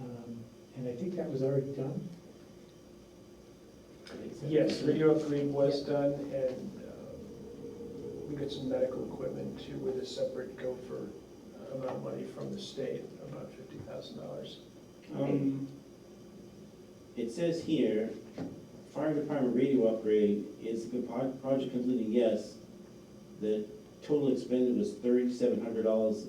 Um, and I think that was already done. Yes, radio upgrade was done, and uh, we got some medical equipment too with a separate gopher amount of money from the state, about fifty thousand dollars. Um, It says here, fire department radio upgrade is the pro- project completed, yes. The total expended was thirty-seven hundred dollars,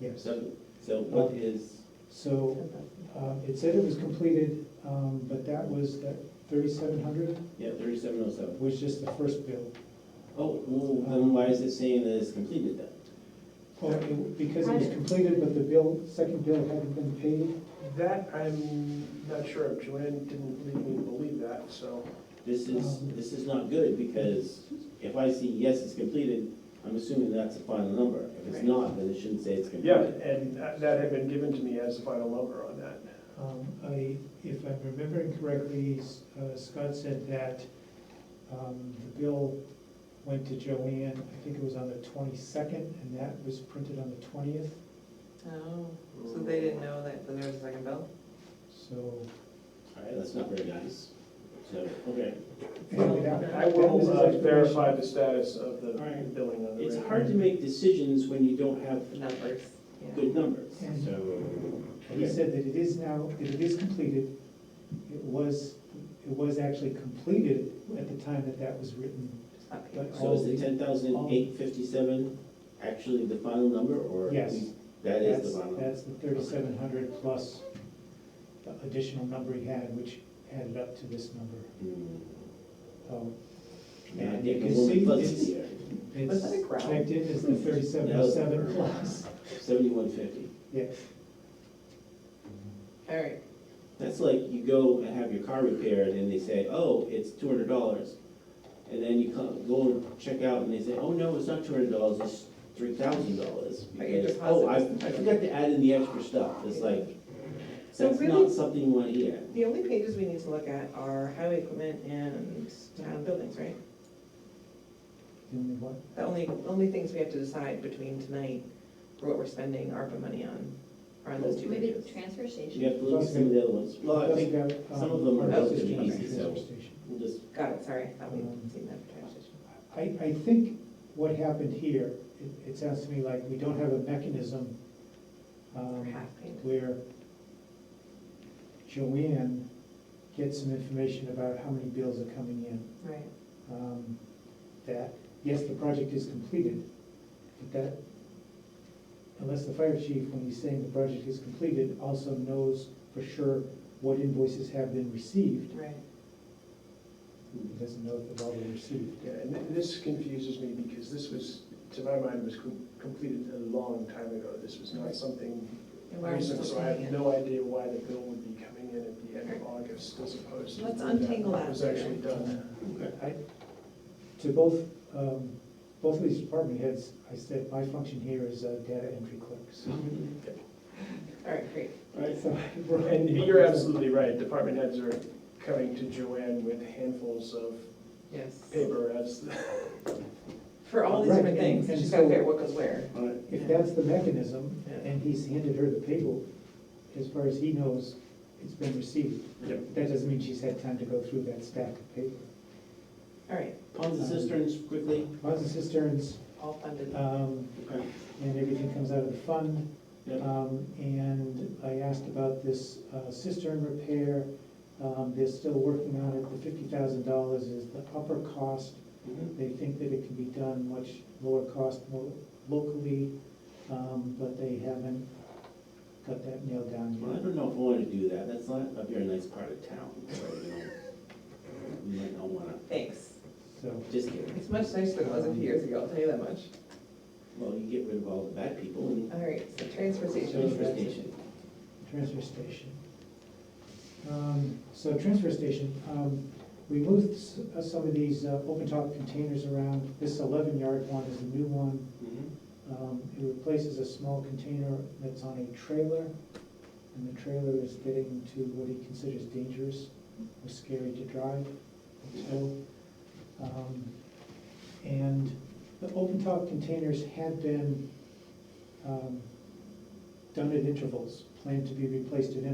Yes. so, so Oh. what is, So, um, it said it was completed, um, but that was, that thirty-seven hundred yeah, thirty-seven oh seven. was just the first bill. Oh, well, then why is it saying that it's completed then? Well, it- because it was completed, but the bill, second bill hadn't been paid. That, I'm not sure, of. Joanne didn't lead me to believe that, so. This is, Um, this is not good, because if I see yes, it's completed, I'm assuming that's the final number. If it's Right. not, then it shouldn't say it's Yeah, completed. and that that had been given to me as the final number on that. Um, I, if I'm remembering correctly, S- uh, Scott said that, um, the bill went to Joanne, I think it was on the twenty-second, and that was printed on the twentieth, Oh, so they didn't know that there was a second bill? so. All right, that's not very nice. So, okay. anyway, that- I that was will his uh, explanation. verify the status of the All right. billing on the. It's radio. hard to make decisions when you don't have The numbers, yeah. good numbers, And- so. He okay. said that it is now, that it is completed. It was, it was actually completed at the time that that was written. It's not but paper. So is the ten thousand eight fifty-seven actually the final number, or? Yes. we- That is That's- the final? number? That's the thirty-seven hundred plus the additional number he had, which added up to this number. Hmm. So Now I And get you a can little see fuzzy it's- here. Was it's that a growl? checked in as the thirty-seven oh seven plus. Seventy-one fifty. Yes. All right, That's like you go and have your car repaired and they say, oh, it's two hundred dollars. And then you come, go and check out and they say, oh, no, it's not two hundred dollars, it's three thousand dollars. But your Because, deposit oh, I, was- I forgot to add in the extra stuff. It's like, So that's really- not something you want to hear. the only pages we need to look at are highway equipment and town buildings, right? The only one. The only, only things we have to decide between tonight are what we're spending ARPA money on, are on those two Maybe pages. the transfer station. You have to look at some of the other ones. Well, I think some um, of them are relatively easy, so- we'll just Got it, sorry, I thought we'd seen that for I, transportation. I think what happened here, it, it sounds to me like we don't have a mechanism Or um, half payment. where Joanne gets some information about how many bills are coming in. Right, um, That, yes, the project is completed, but that, unless the fire chief, when he's saying the project is completed, also knows for sure what invoices have been received, right. he doesn't know if they've all been received. Yeah, and th- this confuses me because this was, to my mind, was com- completed a long time ago. This was not something And we're recent, still so I paying have it. no idea why the bill would be coming in at the end of August as opposed to. Let's when untangle that. Was actually done. I, to both, um, both of these department heads, I said, my function here is a data entry clerk, so. All right, great. so we're- And you're absolutely right, department heads are coming to Joanne with handfuls of Yes. paper as, the- For all these Right, different and- things, and she's got to so- figure out what goes where. If that's the mechanism, Yeah. and he's handed her the paper, as far as he knows, it's been received. Yep. That doesn't mean she's had time to go through that stack of paper. All right, Ponds and cisterns quickly. Ponds and cisterns, all funded. um, Okay. and everything comes out of the fund. Yep. Um, And I asked about this uh, cistern repair. Um, They're still working on it. The fifty thousand dollars is the upper cost. Mhm. They think that it can be done much lower cost more locally, um, but they haven't got that nailed down Well, I yet. don't know if I want to do that. That's not a very nice part of town, so, you know. You might not want to, Thanks. So, just kidding. It's much nicer than it was a few years ago, I'll tell you that much. Well, you get rid of all the bad people and. All right, so transfer station. So- Transfer station. transfer station. Um, So transfer station, um, we moved s- uh, some of these uh, open top containers around. This eleven yard one is a new one. Mhm. Um, It replaces a small container that's on a trailer, and the trailer is getting to what he considers dangerous or scary to drive. So, um, and the open top containers had been um, done at intervals, planned to be replaced at